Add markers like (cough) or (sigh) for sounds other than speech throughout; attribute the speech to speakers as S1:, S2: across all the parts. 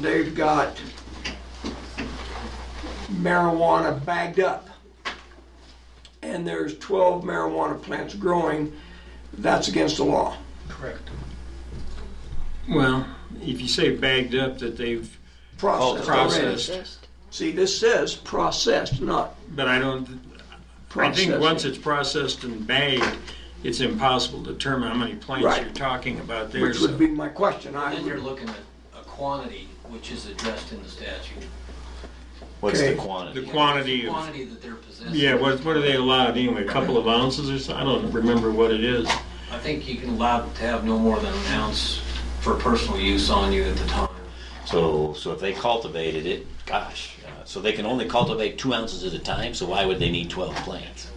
S1: They've got marijuana bagged up. And there's 12 marijuana plants growing. That's against the law.
S2: Oh,
S3: Correct.
S2: Well, if you say bagged up, that they've, Oh,
S1: Processed already.
S2: processed.
S1: See, this says processed, not
S2: but I don't, I
S1: processed.
S2: think once it's processed and bagged, it's impossible to determine how many plants
S1: Right.
S2: you're talking about there.
S1: Which would
S2: So
S1: be my question. I
S3: Then you're
S1: would,
S3: looking at a quantity which is addressed in the statute.
S4: What's
S1: Okay.
S4: the
S2: The
S4: quantity?
S2: quantity
S3: The
S2: of,
S3: Quantity that they're possessing.
S2: yeah, what, what are they allowed anyway? A couple of ounces or so? I don't remember what it is.
S3: I think you can allow to have no more than an ounce for personal use on you at the time.
S4: So, so if they cultivated it, gosh, uh, so they can only cultivate two ounces at a time. So why would they need twelve plants?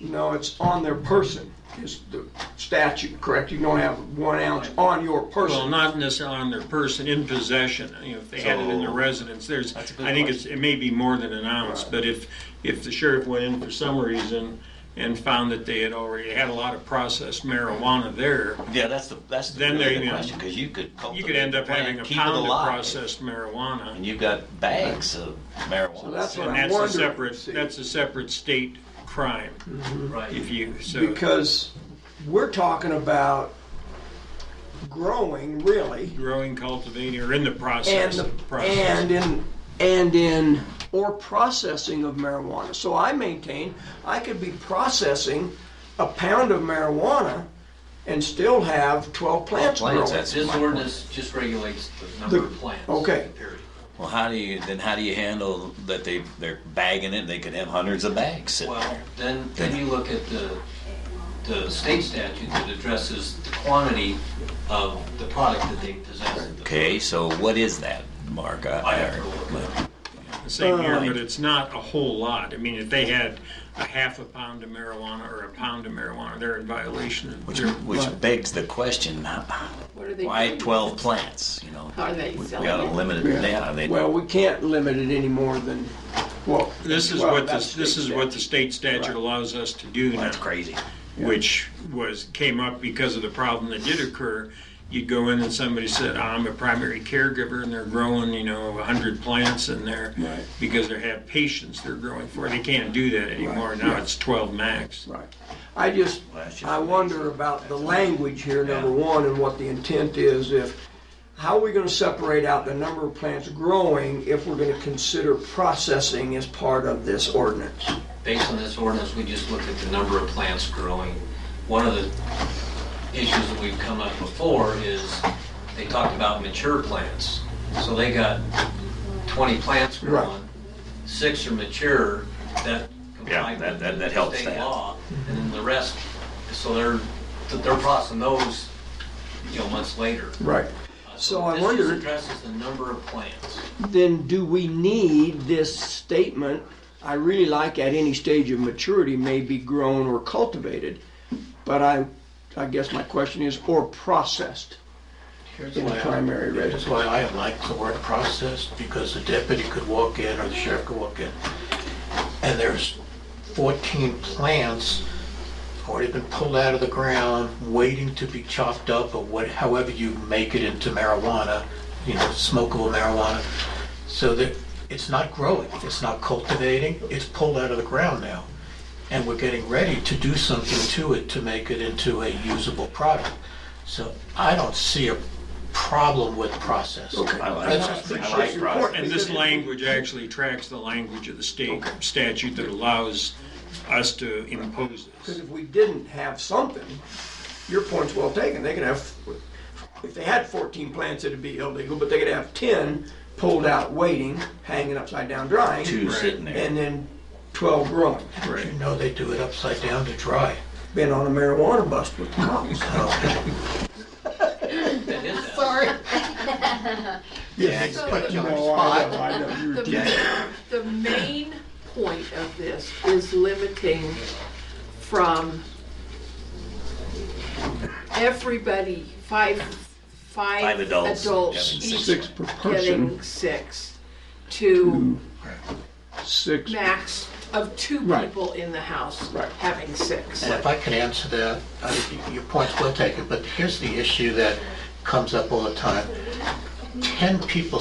S1: no, it's on their person is the statute, correct? You don't have one ounce on your
S2: Well,
S1: person.
S2: not necessarily on their person, in possession, you know, if they had it in their
S4: So-
S2: residence, there's,
S4: That's a good
S2: I think it's, it may be more than an ounce, but if, if the sheriff went in for some reason and found that they had already had a lot of processed marijuana there,
S4: Yeah, that's the that's the,
S2: Then
S4: really
S2: there
S4: the
S2: you go.
S4: question because you could cultivate
S2: you could end
S4: the
S2: up having a
S4: plant, keep it
S2: pound of
S4: alive,
S2: processed marijuana.
S4: and you've got bags of marijuana.
S1: So that's what
S2: And
S1: I'm
S2: that's a
S1: wondering,
S2: separate,
S1: see.
S2: that's a separate state crime,
S3: Right.
S2: if you, so,
S1: Because we're talking about growing, really.
S2: growing, cultivating, or in the
S1: and
S2: process
S1: the,
S2: of the process.
S1: and in and in or processing of marijuana. So I maintain I could be processing a pound of marijuana and still have 12 plants growing.
S4: plants, that's-
S3: This ordinance just regulates the number of plants.
S1: okay.
S3: Period.
S4: Well, how do you then? How do you handle that they they're bagging it? They could have hundreds of bags. sitting
S3: Well,
S4: there.
S3: then, then you look at the, the state statute that addresses the quantity of the product that they possess.
S4: Okay, so what is that, Mark?
S3: I have to go look it up.
S2: Same here,
S1: uh,
S2: but it's not a whole lot. I mean, if they had a half a pound of marijuana or a pound of marijuana, they're in violation of
S4: Which,
S2: their.
S4: which begs the question,
S5: What are they
S4: why
S5: doing?
S4: 12 plants, you know?
S5: How are they
S4: We we
S5: selling
S4: gotta
S5: it?
S4: limit it, yeah, they,
S1: Well, we can't limit it any more than well.
S2: This is
S1: well,
S2: what, the-
S1: that's
S2: this is
S1: state
S2: what the
S1: statute.
S2: state statute allows us to do now.
S4: that's crazy.
S2: Which was, came up because of the problem that did occur. You'd go in and somebody said, "Oh, I'm a primary caregiver and they're growing, you know, a hundred plants in there.
S1: Right.
S2: Because they have patients they're growing for. They can't do that anymore. Now it's twelve max.
S1: Right. I just,
S4: Well, that's just
S1: I wonder
S4: amazing.
S1: about the language here, number one, and what the intent is if, how are we gonna separate out the number of plants growing if we're gonna consider processing as part of this ordinance?
S3: based on this ordinance, we just looked at the number of plants growing. One of the issues that we've come up before is they talked about mature plants. So they got 20 plants
S1: Right.
S3: growing, six are mature, that
S4: Yeah,
S3: complied
S4: that-
S3: with
S4: that-
S3: the
S4: that helps
S3: state
S4: that.
S3: law. And then the rest, so they're, they're processing those, you know, months later.
S1: Right.
S3: Uh,
S1: So I
S3: This
S1: wondered-
S3: just addresses the number of plants.
S1: Then do we need this statement, I really like at any stage of maturity may be grown or cultivated, but I, I guess my question is, or processed
S6: Here's
S1: in
S6: why I-
S1: primary
S6: Here's
S1: residence?
S6: why I like the word processed, because the deputy could walk in, or the sheriff could walk in, and there's 14 plants already been pulled out of the ground, waiting to be chopped up, or what, however you make it into marijuana, you know, smokable marijuana, so that it's not growing, it's not cultivating, it's pulled out of the ground now. And we're getting ready to do something to it to make it into a usable product. So I don't see a problem with process.
S4: I like
S6: That's
S4: that.
S6: just-
S4: I like process.
S2: And this language actually tracks the language of the state statute that allows us to impose this.
S1: Because if we didn't have something, your point's well taken, they could have, if they had fourteen plants, it'd be illegal, but they could have ten pulled out waiting, hanging upside down drying.
S4: Two sitting there.
S1: And then twelve growing,
S6: You know, they do it upside down to dry.
S1: been on a marijuana bust with the (laughs) cops.
S3: That is that.
S6: Yeah.
S5: So
S6: Put you on the
S1: No, I know, uh, I know, you're dead.
S5: The the main point of this is limiting from everybody, five, five.
S4: Five adults, having
S5: Adults
S4: six.
S5: each
S1: Six per person,
S5: getting six to
S1: six,
S5: max of two
S1: Right.
S5: people in the house
S1: Right.
S5: having six.
S6: And if I can answer that, I- your point's well taken, but here's the issue that comes up all the time. ten people